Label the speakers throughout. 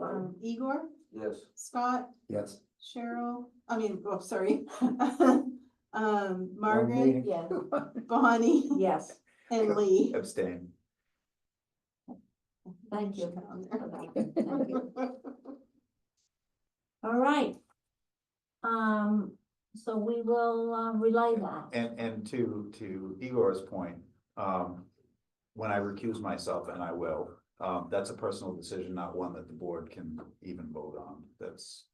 Speaker 1: um, Igor,
Speaker 2: Yes.
Speaker 1: Scott,
Speaker 3: Yes.
Speaker 1: Cheryl, I mean, oh, sorry. Um, Margaret,
Speaker 3: meeting.
Speaker 4: Yeah,
Speaker 1: Bonnie,
Speaker 4: yes,
Speaker 1: and Lee.
Speaker 2: Abstain.
Speaker 4: thank
Speaker 1: Should
Speaker 4: you.
Speaker 1: put on
Speaker 4: for
Speaker 1: there.
Speaker 4: that. Thank you. All right. Um, so we will uh, relay that.
Speaker 2: And, and to, to Igor's point, um, when I recuse myself, and I will, um, that's a personal decision, not one that the board can even vote on. That's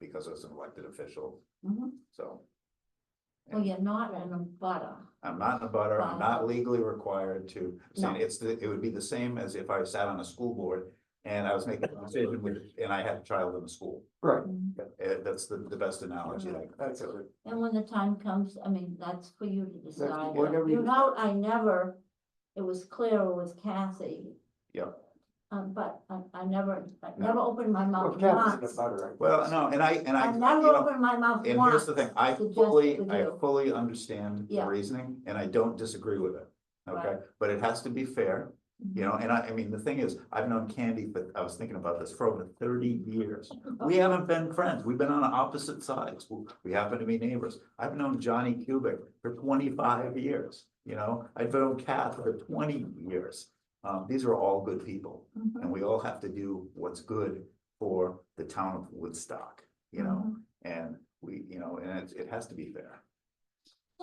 Speaker 2: because as an elected official,
Speaker 3: Mm-hmm.
Speaker 4: Mhm.
Speaker 2: so
Speaker 4: Well, you're Oh, not in a butter.
Speaker 2: I'm not in a butter, I'm not
Speaker 4: Wow.
Speaker 2: legally required to.
Speaker 4: No.
Speaker 2: abstain. It's, the- it would be the same as if I sat on a school board and I was making a decision with, and I had a child in the school.
Speaker 3: Right.
Speaker 4: And
Speaker 2: Uh, that's the, the best analogy. I can
Speaker 3: That's
Speaker 2: think of.
Speaker 3: it.
Speaker 4: when the time comes, I mean, that's for you to decide.
Speaker 3: whatever
Speaker 4: You
Speaker 3: you-
Speaker 4: know, I never, it was clear with Kathy.
Speaker 2: Yeah.
Speaker 4: Um, but I, I never, I
Speaker 2: No.
Speaker 4: never opened my
Speaker 3: Well,
Speaker 4: mouth
Speaker 3: Kathy's in a
Speaker 4: once.
Speaker 3: butter, right?
Speaker 2: Well, no, and I, and I.
Speaker 4: I
Speaker 2: you
Speaker 4: never
Speaker 2: know,
Speaker 4: opened my mouth
Speaker 2: And
Speaker 4: once.
Speaker 2: here's the thing, I
Speaker 4: to just
Speaker 2: fully,
Speaker 4: with
Speaker 2: I
Speaker 4: you.
Speaker 2: fully understand the
Speaker 4: Yeah.
Speaker 2: reasoning and I don't disagree with it. Okay,
Speaker 4: Right.
Speaker 2: but it has to be fair, you know, and I, I mean, the thing is, I've known Candy, but I was thinking about this for over thirty years. We haven't been friends. We've been on opposite sides. We- We happen to be neighbors. I've known Johnny Cubic for twenty-five years, you know? I've known Kath for twenty years. Um, these are all good people
Speaker 4: Mhm.
Speaker 2: and we all have to do what's good for the town of Woodstock, you know? And we, you know, and it, it has to be fair.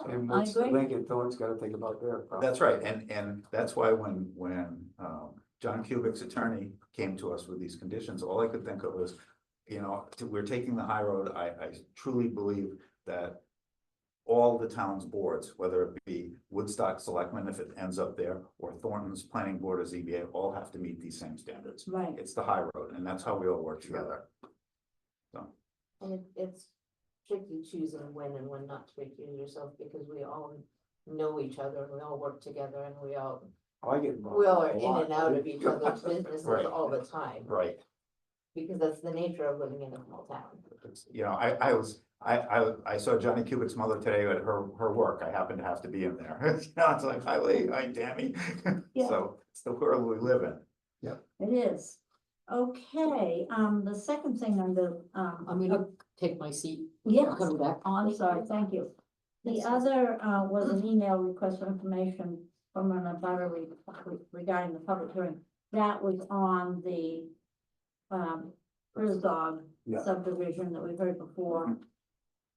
Speaker 3: And
Speaker 4: I
Speaker 3: what's
Speaker 4: agree.
Speaker 3: Lincoln, someone's gotta think about their. problem.
Speaker 2: That's right, and, and that's why when, when, um, John Kubik's attorney came to us with these conditions, all I could think of was, you know, t- we're taking the high road, I, I truly believe that all the town's boards, whether it be Woodstock Selectmen, if it ends up there, or Thornton's Planning Board or ZBA, all have to meet these same standards.
Speaker 4: Right.
Speaker 2: It's the high road, and that's how we all work together.
Speaker 5: And it, it's tricky choosing when and when not to recuse yourself, because we all know each other, and we all work together, and we all,
Speaker 2: Oh,
Speaker 3: I get involved.
Speaker 5: we all
Speaker 3: a
Speaker 5: are in
Speaker 3: lot.
Speaker 5: and out of each other's businesses
Speaker 2: Right.
Speaker 5: all the time,
Speaker 2: Right.
Speaker 5: because that's the nature of living in a small town.
Speaker 2: it's- you know, I, I was, I, I, I saw Johnny Cubic's mother today at her, her work. I happened to have to be in there. You know, it's like, hi, Lee, hi, Tammy.
Speaker 4: Yeah.
Speaker 2: So it's the world we live in.
Speaker 4: It is. Okay, um, the second thing under, um.
Speaker 6: I'm gonna take my seat.
Speaker 4: Yes,
Speaker 6: Coming back.
Speaker 4: oh, I'm sorry, thank you. The other, uh, was an email request for information from an abutter re- regarding the public hearing. That was on the, um, Herzog
Speaker 3: Yeah. Mm-hmm.
Speaker 4: subdivision that we've heard before.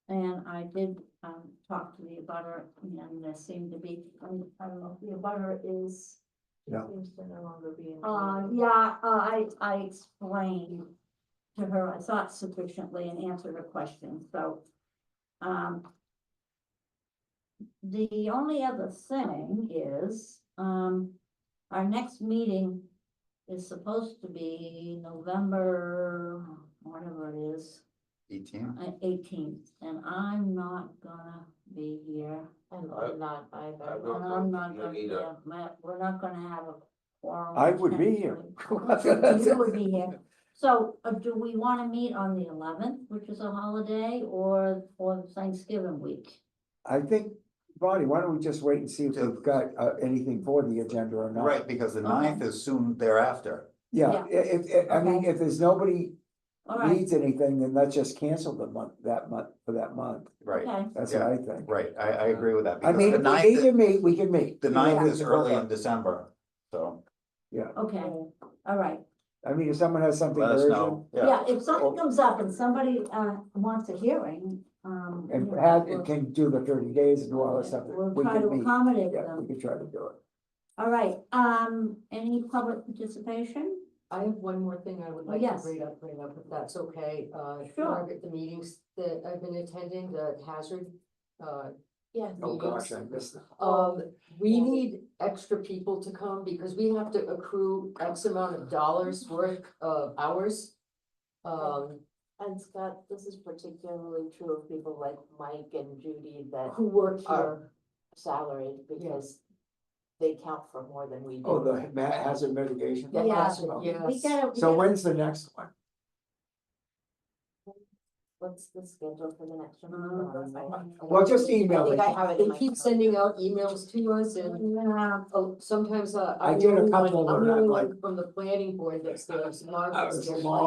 Speaker 4: And I did, um, talk to the abutter and there seemed to be, I don't I don't know, if the abutter is
Speaker 3: Yeah.
Speaker 5: Seems to no longer be. in the
Speaker 4: uh,
Speaker 5: meeting.
Speaker 4: yeah, uh, I, I explained to her, I thought sufficiently and answered her question, so, um. The only other thing is, um, our next meeting is supposed to be November, whatever it is,
Speaker 2: Eighteen,
Speaker 4: eighteenth, and I'm not gonna be here.
Speaker 5: And
Speaker 7: I-
Speaker 5: I'm not either.
Speaker 7: will- No,
Speaker 4: And
Speaker 7: no,
Speaker 4: I'm not
Speaker 7: you
Speaker 4: gonna,
Speaker 7: need
Speaker 4: be
Speaker 7: a-
Speaker 4: a- my- we're not gonna have a quorum.
Speaker 3: I would be here.
Speaker 4: technically. You would be here. So, uh, do we wanna meet on the eleventh, which is a holiday, or, or Thanksgiving week?
Speaker 3: I think, Bonnie, why don't we just wait and see if we've got, uh, anything for the agenda or not?
Speaker 2: right, because the ninth is soon thereafter.
Speaker 3: Yeah, i- if, if, I mean,
Speaker 4: Okay.
Speaker 3: if there's nobody
Speaker 4: All right,
Speaker 3: needs anything, then let's just cancel the month, that month, for that month.
Speaker 2: Right,
Speaker 4: okay,
Speaker 3: That's what I think.
Speaker 2: right. I, I agree with that.
Speaker 3: Uh, I
Speaker 2: because
Speaker 3: mean,
Speaker 2: the
Speaker 3: if we need
Speaker 2: ninth-
Speaker 3: to meet, we can meet.
Speaker 2: The
Speaker 3: You know, we
Speaker 2: ninth is
Speaker 3: can work
Speaker 2: early
Speaker 3: out.
Speaker 2: in December, so
Speaker 4: okay, all right.
Speaker 3: I mean, if someone has something
Speaker 2: let us
Speaker 3: urgent
Speaker 2: know.
Speaker 4: Yeah, if something comes up and somebody, uh, wants a hearing, um.
Speaker 3: and
Speaker 4: you know,
Speaker 3: had,
Speaker 4: we'll-
Speaker 3: and can do the thirty days and do all that stuff,
Speaker 4: We'll
Speaker 3: we
Speaker 4: try to
Speaker 3: can meet.
Speaker 4: accommodate
Speaker 3: Yeah, we
Speaker 4: them.
Speaker 3: can try to do it.
Speaker 4: All right, um, any public participation?
Speaker 5: I have one more thing I would
Speaker 4: Oh,
Speaker 5: like to
Speaker 4: yes.
Speaker 5: bring up, bring up, if that's okay. Uh,
Speaker 4: Sure.
Speaker 5: Margaret, the meetings that I've been attending, the hazard, uh,
Speaker 6: Yeah.
Speaker 3: Oh, gosh, I
Speaker 5: meetings.
Speaker 3: missed that.
Speaker 4: Oh.
Speaker 5: Um, we
Speaker 6: Yeah.
Speaker 5: need extra people to come because we have to accrue X amount of dollars worth of hours. Um,
Speaker 6: And Scott, this is particularly true of people like Mike and Judy that
Speaker 5: who work here,
Speaker 6: are salaried because they count for more than we do.
Speaker 3: Oh, the ma- hazard mitigation.
Speaker 5: Yeah,
Speaker 4: Yeah.
Speaker 3: that's about-
Speaker 5: yeah.
Speaker 4: We
Speaker 5: Yes.
Speaker 4: gotta. we
Speaker 3: So
Speaker 4: gotta-
Speaker 3: when's the next one?
Speaker 6: What's the schedule for the next one?
Speaker 4: Um,
Speaker 3: Well, just
Speaker 5: I
Speaker 3: email
Speaker 5: think
Speaker 3: it.
Speaker 5: I
Speaker 6: have it
Speaker 5: they
Speaker 6: in my
Speaker 5: keep
Speaker 6: phone.
Speaker 5: sending out emails to us and,
Speaker 4: Yeah,
Speaker 5: oh, sometimes, uh.
Speaker 3: I
Speaker 5: I'm the
Speaker 3: did a
Speaker 5: only one-
Speaker 3: couple of
Speaker 5: I'm the
Speaker 3: that,
Speaker 5: only
Speaker 3: like-
Speaker 5: one from the planning board that's there, so
Speaker 3: That
Speaker 5: Margaret's
Speaker 3: was a
Speaker 5: there.
Speaker 3: long